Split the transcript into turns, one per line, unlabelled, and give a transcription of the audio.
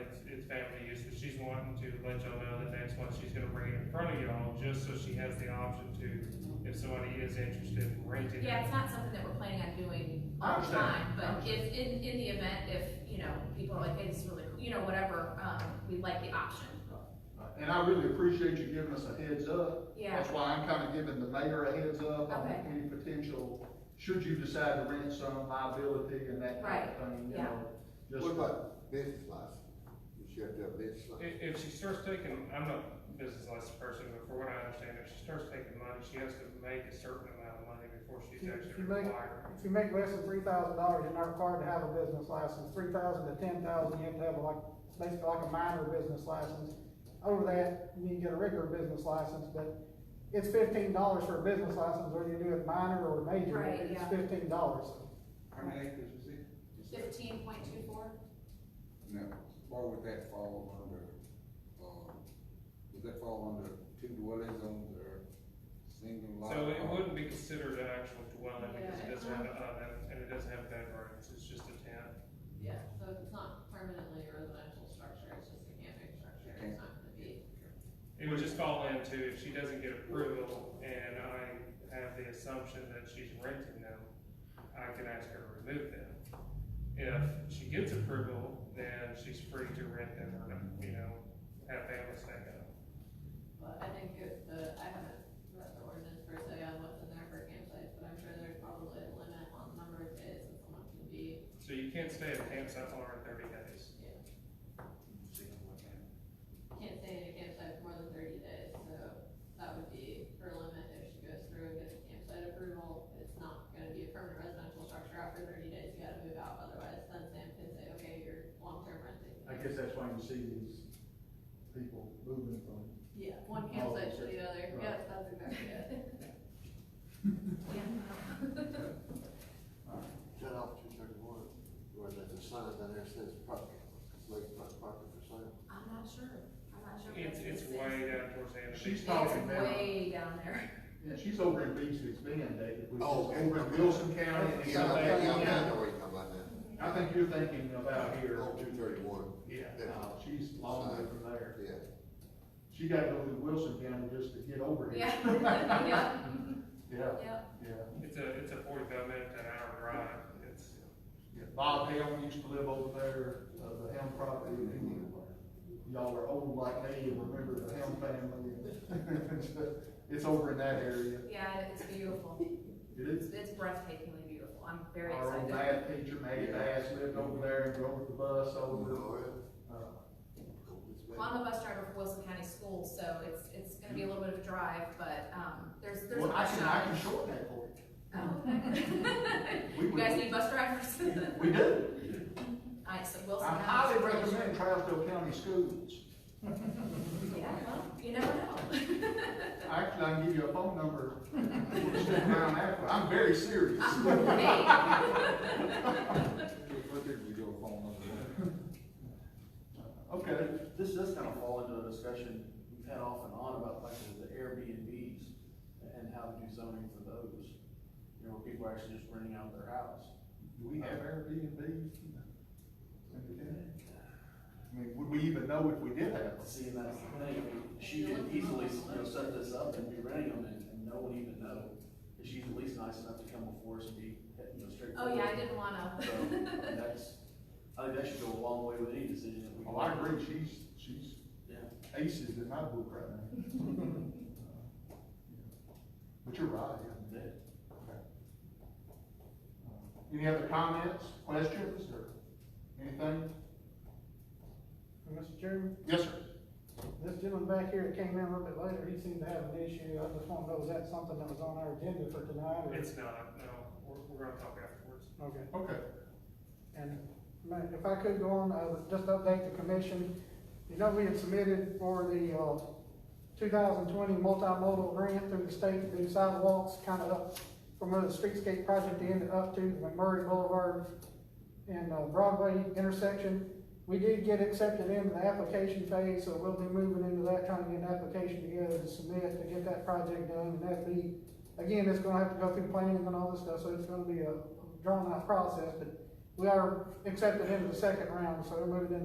it's, it's family use, but she's wanting to let y'all know that that's what she's gonna bring in front of y'all, just so she has the option to, if somebody is interested in renting
Yeah,
it.
it's not something that we're planning on doing
I
all the
understand.
time,
I
but
understand.
if, in, in the event, if, you know, people are like, hey, this is really, cool," you know, whatever, um, we like the option.
And I really appreciate you giving us a heads up.
Yeah,
That's why I'm kind of giving the mayor a heads up on
Okay.
any potential, should you decide to rent some liability and that kind of thing, you
yeah.
know? Just,
What about business license? You should have to have business license.
If, if she starts taking, I'm not a business license person, but for what I understand, if she starts taking money, she has to make a certain amount of money before she's
If you- if
actually
you make-
required.
If you make less than three thousand dollars, you're not required to have a business license. Three thousand to ten thousand, you have to have like, basically like a minor business license. Over that, you need to get a regular business license, but it's fifteen dollars for a business license, whether you do it minor or major,
Right,
it's
yeah.
fifteen dollars.
How many acres is it?
fifteen point two four?
Now, why would that fall under, um, would that fall under two dwellings on their single lot?
So it wouldn't be considered an actual dwelling, because it
Yeah,
doesn't have an oven, and it doesn't have bedrooms, it's just a tent.
Yeah, so if it's not permanently a residential structure, it's just a camping structure, it's not gonna be.
It would just fall into if she doesn't get approval and I have the assumption that she's renting them, I can ask her to remove them. If she gets approval, then she's free to rent them or, you know, have family stay at them.
But I think if the, I haven't read the ordinance per se on what's in there for campsites, but I'm sure there's probably a limit on the number of days that someone can be.
So you can't stay at a campsite longer than thirty days.
Can't stay in a campsite for more than thirty days, so that would be her limit if she goes through and gets campsite approval. It's not gonna be a permanent residential structure after thirty days, you gotta move out, otherwise then Sam can say, okay, you're long-term renting.
I guess that's why you see these people moving from
Yeah, one campsite to the
Oh,
other, yes, that's exactly it.
Shut off two thirty-one, where there's a sign down there that says parking, complete park- parking for sale.
I'm not sure, I'm not sure.
It's, it's way down towards the end of the.
She's
It's
talking now.
way down there.
Yeah, she's over in Beach that's mandated, which is
Oh, okay.
over in Wilson County. and
Yeah, I think, yeah, I
County.
know where you're talking about now.
I think you're thinking about here.
On two thirty-one,
Yeah,
Yeah.
no, she's long way from there.
yeah.
She gotta go through Wilson County just to get over here.
Yeah, yeah,
Yeah,
yeah.
yeah.
It's a, it's a forty-five minute to an hour drive, it's,
Yeah, Bob Helm used to live over there, uh, the Helm property. Y'all are old like me and remember the Helm family. It's over in that area.
Yeah, it's beautiful,
It is.
it's, it's breathtakingly beautiful, I'm very
Our old
excited.
math teacher, Maggie Bass, lived over there and drove the bus over.
Oh, yeah.
Uh,
Cool, it's
Well,
been-
I'm a bus driver for Wilson County Schools, so it's, it's gonna be a little bit of a drive, but, um, there's, there's.
Well, I can, I can
options.
shorten that for you.
Oh.
We
You guys
would,
need bus drivers?
we do.
Alright, so Wilson
I
County.
highly recommend Trousdale County Schools.
Yeah, well, you never know.
Actually, I can give you a phone number. Stick around after. I'm very serious.
What did we do a phone number?
Okay.
This does kind of fall into a discussion we've had off and on about like the Airbnbs and how to do zoning for those. You know, where people are actually just renting out their house.
Do we have Airbnb? I mean, would we even know if we did have?
Let's See, and that's the thing, I mean, she could easily, you know, set this up and be renting them and, and no one even know. And she's at least nice enough to come before us and be, you know, straight.
Oh, yeah, I didn't wanna.
So, I mean, that's, I think that should go a long way with any decision that we.
Well, Oh, I agree, she's, she's
Yeah.
aces in my book right now. But you're right, yeah.
That-
Any other comments, questions, or anything?
Mr. Chairman,
Yes, sir.
this gentleman back here that came in a little bit later, he seemed to have an issue, I just want to know, is that something that was on our agenda for tonight, or?
it's not, no, we're, we're gonna talk afterwards.
Okay.
Okay.
And ma- if I could go on, I would just update the commission. You know, we had submitted for the, uh, two thousand twenty multimodal grant through the state to do sidewalks, kind of up from where the streetscape project ended up to the McMurray Boulevard and uh, Broadway intersection. We did get accepted into the application phase, so we'll be moving into that, trying to get an application together to submit to get that project done. And that'd be, again, it's gonna have to go through planning and all this stuff, so it's gonna be a drawn out process, but we are accepted into the second round, so we're moving into